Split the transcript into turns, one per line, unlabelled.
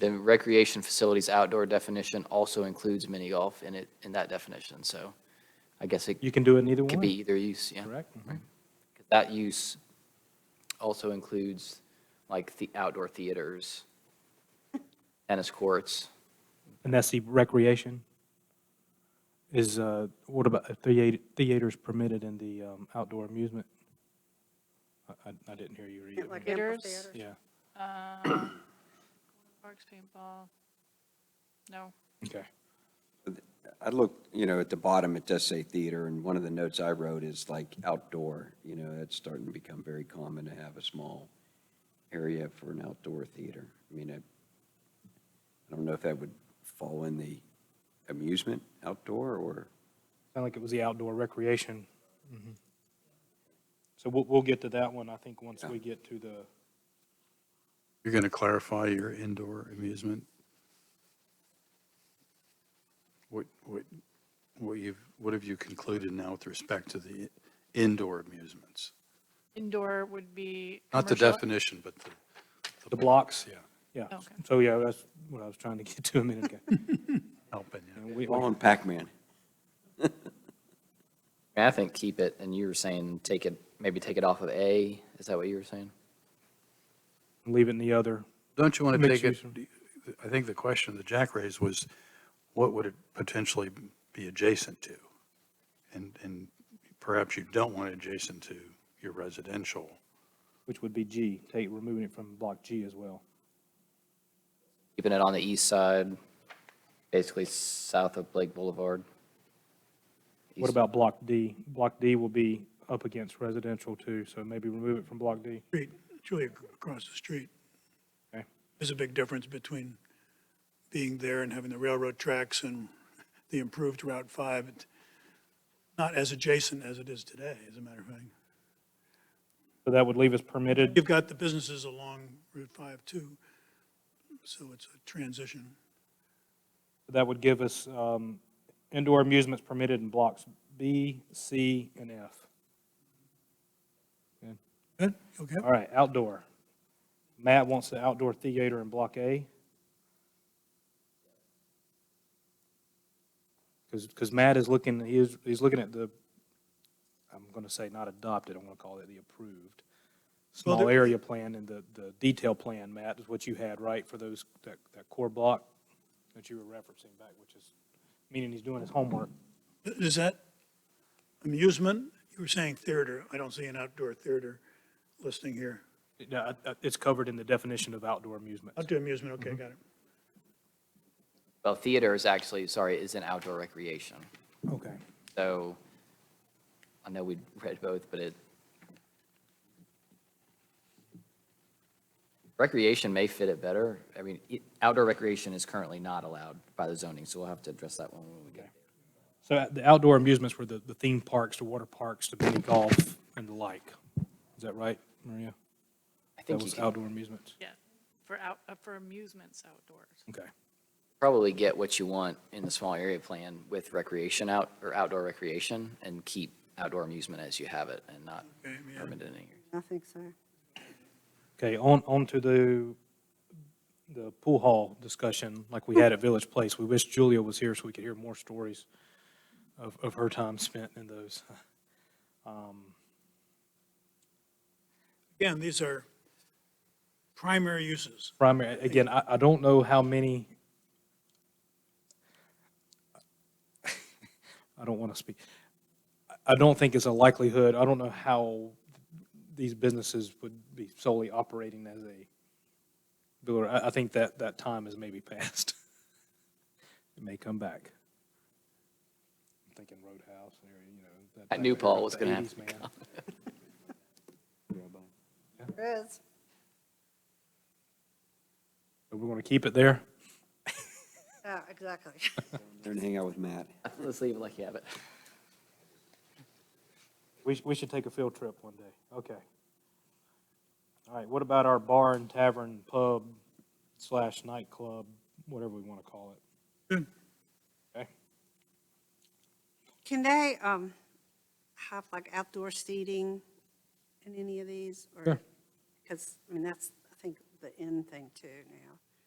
The recreation facilities outdoor definition also includes mini golf in it, in that definition, so I guess it
You can do it in either
could be
one,
either use, yeah.
correct? Mm-hmm.
That use also includes like the outdoor theaters, tennis courts.
And that's the recreation? Is, uh, what about uh, theat- theaters permitted in the um, outdoor amusement? I- I I didn't hear you read
Like
it.
amphitheaters?
Yeah,
Uh, Parks, paintball. No.
okay.
I look, you know, at the bottom, it does say theater, and one of the notes I wrote is like outdoor, you know, that's starting to become very common to have a small area for an outdoor theater. I mean, I, I don't know if that would fall in the amusement outdoor or,
Sound like it was the outdoor recreation. Mhm. So we'll, we'll get to that one, I think, once
Yeah.
we get to the,
You're going to clarify your indoor amusement? What, what, what you've, what have you concluded now with respect to the indoor amusements?
Indoor would be.
Not the
commercial-
definition, but the.
the blocks.
Yeah,
Yeah.
Okay.
So, yeah, that's what I was trying to get to a minute ago.
helping you.
And we-
Ball and Pac-Man.
I think keep it, and you were saying take it, maybe take it off of A, is that what you were saying?
Leave it in the other.
Don't you want to
Mixed
take it,
use.
I think the question that Jack raised was, what would it potentially be adjacent to? And, and perhaps you don't want it adjacent to your residential.
which would be G, take, removing it from block G as well.
Keeping it on the east side, basically south of Blake Boulevard.
What
East-
about block D? Block D will be up against residential too, so maybe remove it from block D.
street, it's really ac- across the street.
Okay.
There's a big difference between being there and having the railroad tracks and the improved Route 5. It's Not as adjacent as it is today, as a matter of fact.
So that would leave us permitted,
You've got the businesses along Route 5 too, so it's a transition.
that would give us um, indoor amusements permitted in blocks B, C, and F.
Good, okay?
All right, outdoor. Matt wants the outdoor theater in block A. Because, Matt is looking, he is, he's looking at the, I'm going to say not adopted, I'm going to call it the approved. Small
Well, there-
area plan and the, the detail plan, Matt, is what you had, right, for those, that, that core block that you were referencing back, which is, meaning he's doing his homework.
Is that amusement? You were saying theater. I don't see an outdoor theater listing here.
Yeah, I- I- It's covered in the definition of outdoor amusement.
Outdoor amusement, okay, got it.
Well, theater is actually, sorry, is an outdoor recreation.
Okay.
So I know we read both, but it, recreation may fit it better. I mean, it- outdoor recreation is currently not allowed by the zoning, so we'll have to address that one when we get.
So uh, the outdoor amusements were the, the theme parks, the water parks, the mini golf, and the like. Is that right, Maria?
I
That
think you
was
can
outdoor amusements?
Yeah, for out, uh, for amusements outdoors.
Okay.
probably get what you want in the small area plan with recreation out, or outdoor recreation, and keep outdoor amusement as you have it and not
Okay, yeah.
permitted in here.
I think so.
Okay, on, on to the, the pool hall discussion like we had at Village Place. We wish Julia was here so we could hear more stories of, of her time spent in those.
Again, these are primary uses.
primary, again, I, I don't know how many. I don't want to speak. I- I don't think it's a likelihood, I don't know how these businesses would be solely operating as a builder. I, I think that, that time is maybe past. It may come back. I'm thinking Roadhouse, and area, you know. that
I
type
knew
of area,
Paul was
the
gonna have
80s, man.
There is.
But We're going to keep it there?
Yeah, exactly.
There and hang out with Matt.
Let's leave it like you have it.
We, sh- we should take a field trip one day. Okay. All right, what about our bar and tavern, pub slash nightclub, whatever we want to call it?
Good.
Okay,
Can they, um, have like outdoor seating in any of these? or
Sure.
Because, I mean, that's, I think, the end thing too now.